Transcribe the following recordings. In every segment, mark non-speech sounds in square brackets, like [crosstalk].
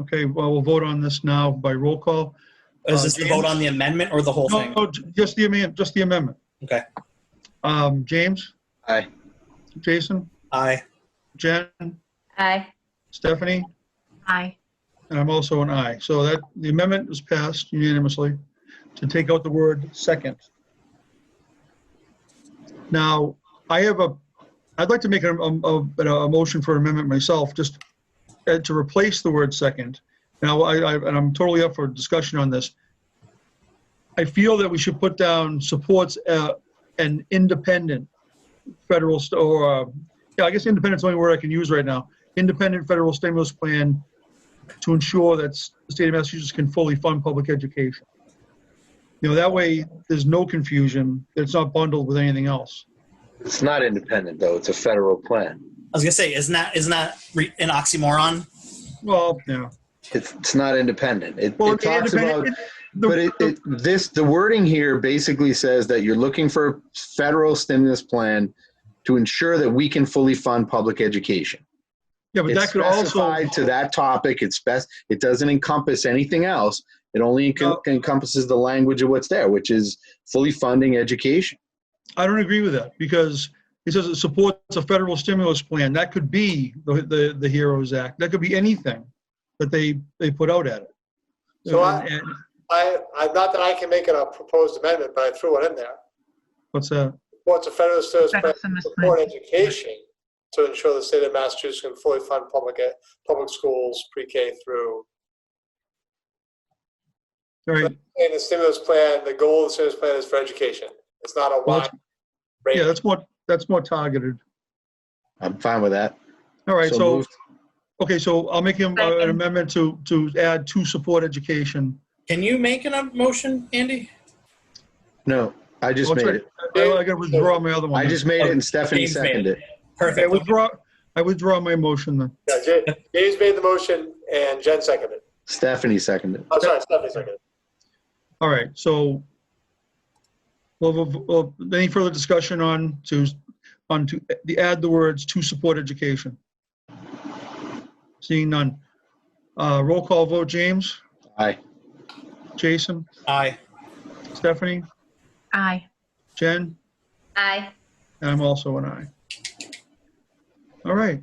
Okay, well, we'll vote on this now by roll call. Is this the vote on the amendment or the whole Uh, No, thing? no, j- just the amendment, just the amendment. Okay. Um, James, Aye. Jason, Aye. Jen, Aye. Stephanie, Aye. and I'm also an aye. So that, the amendment is passed unanimously to take out the word second. Now, I have a, I'd like to make a, a, a a motion for amendment myself, just uh, to replace the word second. Now, I, I, and I'm totally up for discussion on this. I feel that we should put down supports uh, an independent federal, st- or, uh, yeah, I guess independent's the only word I can use right now. Independent federal stimulus plan to ensure that s- the state of Massachusetts can fully fund public education. You know, that way, there's no confusion, that it's not bundled with anything else. It's not independent, though. It's a federal plan. I was gonna say, isn't that isn't that re- an oxymoron? Well, yeah. It's, it's not independent. It, Well, it talks independent- about, it- the- but it, it, this, the wording here basically says that you're looking for a federal stimulus plan to ensure that we can fully fund public education. Yeah, but that It's could also, specified to that topic. It's best, it doesn't encompass anything else. It only enc- No. encompasses the language of what's there, which is fully funding education. I don't agree with that because it says it supports a federal stimulus plan. That could be the, the, the HEROES Act. That could be anything that they, they put out at it. So I- And- I, I, not that I can make it a proposed amendment, but I threw it in there. What's that? Supports a federal service plan Second to sentence, support education to ensure the state of Massachusetts can fully fund public, ed- public schools, pre-K through. All right. And the stimulus plan, the goal of the stimulus plan is for education. It's not a Well, wide range. Yeah, that's more, that's more targeted. I'm fine with that. All right, so, moved. okay, so I'll make him uh, an Second. amendment to, to add to support education. Can you make an a motion, Andy? No, I just Oh, made sorry. it. I I gotta withdraw my other one. I just made Oh, it and Stephanie James made it. seconded it. Okay, I Perfect. withdraw, I withdraw my motion then. Yeah, Jay- James made the motion and Jen seconded. Stephanie seconded. I'm sorry, Stephanie seconded. All right, so, well, well, well, any further discussion on to, on to, the, add the words to support education? Seeing none. Uh, roll call vote, James, Aye. Jason, Aye. Stephanie, Aye. Jen, Aye. and I'm also an aye. All right,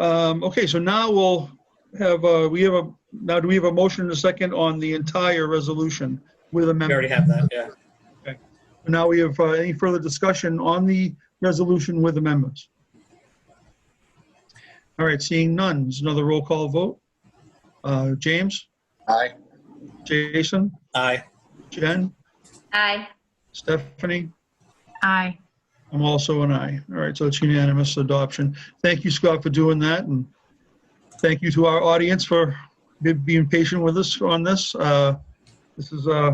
um, okay, so now we'll have, uh, we have a, now do we have a motion and a second on the entire resolution with We amendment? already have that. Yeah. Now we have uh, any further discussion on the resolution with amendments? All right, seeing none, there's another roll call vote. Uh, James, Aye. Jason, Aye. Jen, Aye. Stephanie, Aye. I'm also an aye. All right, so it's unanimous adoption. Thank you, Scott, for doing that, and thank you to our audience for be- being patient with us on this. Uh, This is, uh,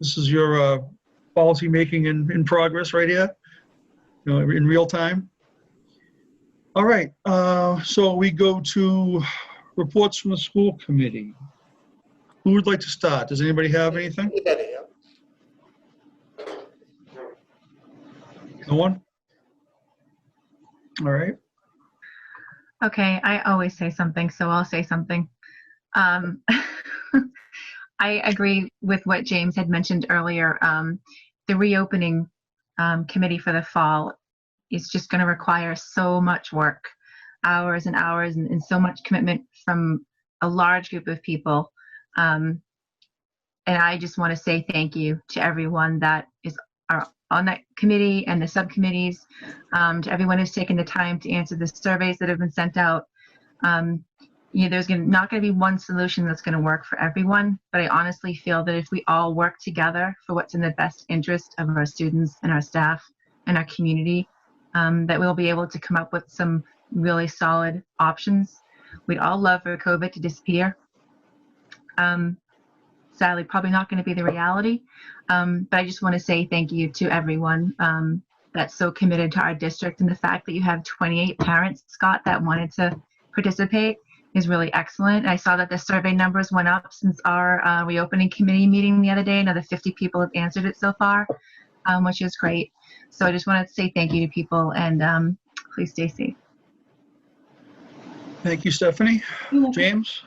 this is your uh, policymaking in, in progress right here, you know, in real time. All right, uh, so we go to reports from the school committee. Who would like to start? Does anybody have anything? Anyhow, No one? All right. Okay, I always say something, so I'll say something. Um, [laughs] I agree with what James had mentioned earlier. Um, the reopening um, committee for the fall is just going to require so much work, hours and hours, and, and so much commitment from a large group of people. Um, and I just want to say thank you to everyone that is are on that committee and the subcommittees um, to everyone who's taken the time to answer the surveys that have been sent out. Um, you know, there's gonna, not going to be one solution that's going to work for everyone, but I honestly feel that if we all work together for what's in the best interest of our students and our staff and our community, um, that we'll be able to come up with some really solid options. We'd all love for COVID to disappear. Um, sadly, probably not going to be the reality, um, but I just want to say thank you to everyone um, that's so committed to our district and the fact that you have 28 parents scott that wanted to participate is really excellent i saw that the survey numbers went up since our uh, reopening committee meeting the other day another 50 people have answered it so far um, which is great so i just wanted to say thank you to people and um, please stay safe Thank you, Stephanie. James?